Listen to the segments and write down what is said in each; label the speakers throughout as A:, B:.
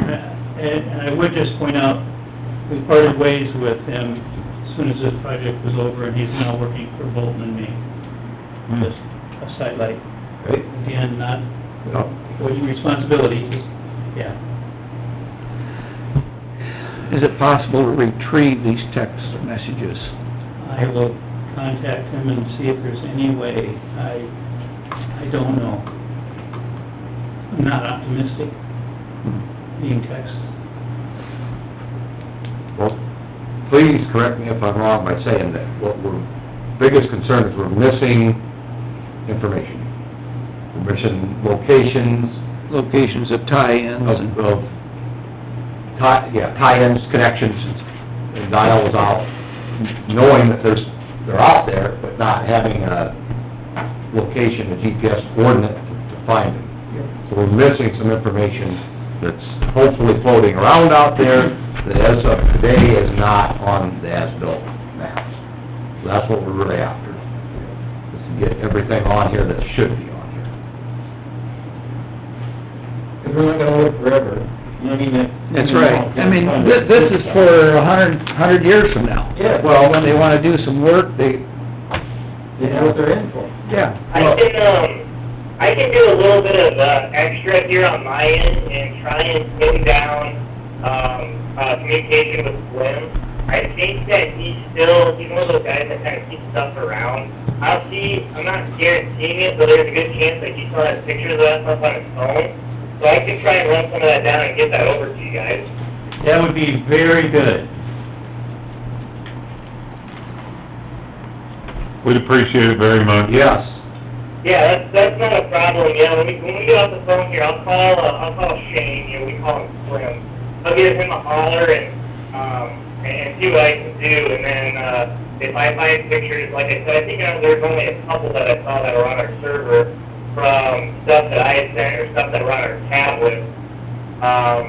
A: Uh, And and I would just point out, we parted ways with him as soon as this project was over, and he's now working for Bolton and me.
B: Hmm.
A: Just a sidelight.
C: Right?
A: Again, not
C: No.
A: avoiding responsibility, just, yeah.
B: Is it possible to retrieve these text messages?
A: I will contact him and see if there's any way. I, I don't know. I'm not optimistic, being text.
C: Well, please correct me if I'm wrong by saying that what we're, biggest concern is we're missing information. We're missing locations,
B: Locations of tie-ins
C: of,
B: and...
C: of tie, yeah, tie-ins, connections, and Dial was out, knowing that there's, they're out there, but not having a location, a GPS coordinate to to find them. So we're missing some information that's hopefully floating around out there, that as of today is not on the as-built maps. So that's what we're really after, is to get everything on here that should be on here.
D: Because we're not gonna live forever. You know what I mean? That-
B: That's right. I mean, thi- this is for a hundred, hundred years from now.
D: Yeah.
B: Oh. Well, when they wanna do some work, they,
D: They know what they're in for.
B: yeah.
E: I can, um, I can do a little bit of, uh, extra here on my end and try and pin down, um, uh, communication with Glenn. I think that he's still, he's one of those guys that kinda keeps stuff around. I'll see, I'm not guaranteeing it, but there's a good chance that he still has pictures of that stuff on his phone. So I can try and run some of that down and get that over to you guys.
A: That would be very good.
F: We'd appreciate it very much.
C: Yes,
E: Yeah, that's, that's not a problem, yeah, when we, when we get off the phone here, I'll call, uh, I'll call Shane, you know, we call him Slim. I'll give him a holler and, um, and and see what I can do, and then, uh, if I find pictures, like I said, I think uh, there's only a couple that I saw that were on our server from stuff that I had sent or stuff that were on our tablet. Um,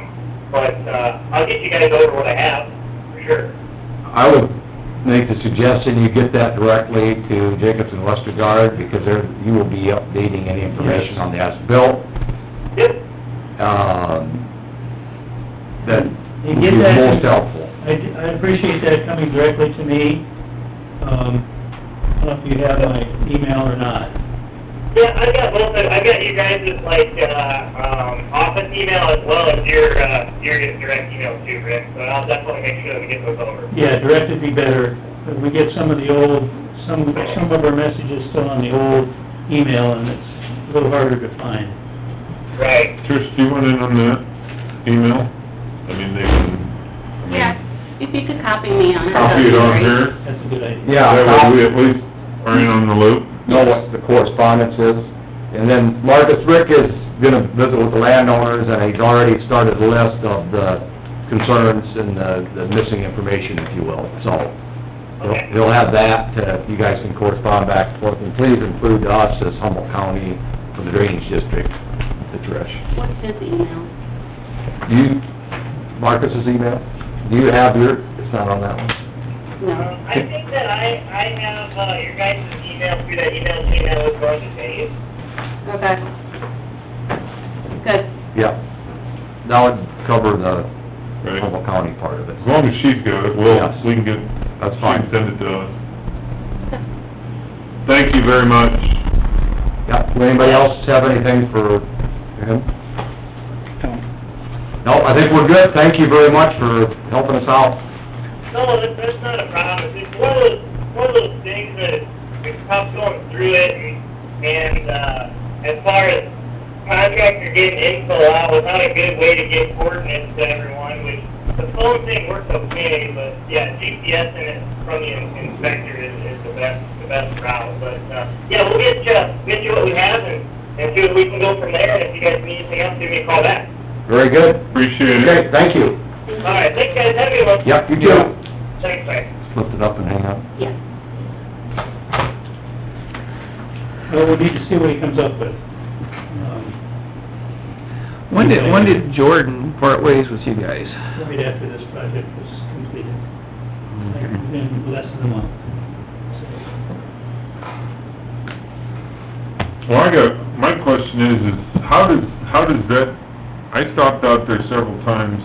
E: but, uh, I'll get you guys over what I have, for sure.
C: I would make the suggestion you get that directly to Jacobs and Westergaard, because they're, you will be updating any information on the as-built,
E: Yep,
C: um, that
A: You
C: would be
A: get that-
C: most helpful.
A: I I appreciate that coming directly to me. Um, I don't know if you have my email or not.
E: Yeah, I got both of, I got you guys' like, uh, um, office email as well as your, uh, your direct email too, Rick, so I'll definitely make sure that we get those over.
A: Yeah, direct would be better. But We get some of the old, some, some of our messages still on the old email, and it's a little harder to find.
E: Right.
F: Trish, do you want in on that email? I mean, they can...
G: Yeah, if you could copy me on it. that'd
F: Copy it
G: be
F: on
G: great.
F: here?
A: That's a good idea.
C: Yeah,
F: That way we
C: we
F: at least are in on the loop.
C: know what the correspondence is. And then Marcus Rick is gonna visit with the landowners, and he's already started a list of the concerns and the, the missing information, if you will, so. he'll-
E: Okay.
C: He'll have that, uh, you guys can correspond back and forth, and please include us as Humboldt County for the Drainage District, the Trish.
G: What's his email?
C: Do you, Marcus's email, do you have your, it's not on that one?
G: No.
E: Um, I think that I, I have, uh, your guys' email through that email chain that was going to Dave.
G: Okay. Good.
C: Yeah. That would cover the
F: Right.
C: Humboldt County part of it.
F: As long as she's got it, we'll,
C: Yes.
F: we can get...
C: That's
F: she
C: fine.
F: can Send it to us. Thank you very much.
C: Yeah, do anybody else have anything for him? No, I think we're good, thank you very much for helping us out.
E: No, that's, that's not a problem, it's just one of those, one of those things that, it's tough going through it, and, and, uh, as far as contractor getting info out without a good way to get coordinates to everyone, which, the phone thing works okay, but, yeah, GPS and it from the inspector is, is the best, the best route, but, uh, yeah, we'll get you, get you what we have, and, and see what we can go from there, and if you guys need anything else, give me a call back.
C: Very good.
F: Appreciate it.
C: Okay, thank you.
E: All right, thanks, guys, have a good one.
C: Yep, you too.
E: Thanks, bye.
C: Lift it up and hang up.
G: Yes.
A: Well, we need to see what he comes up with. Um,
B: When did, when did Jordan part ways with you guys?
A: right after this project was completed, like, in less than a month.
F: Well, I got, my question is, is how does, how does that... I stopped out there several times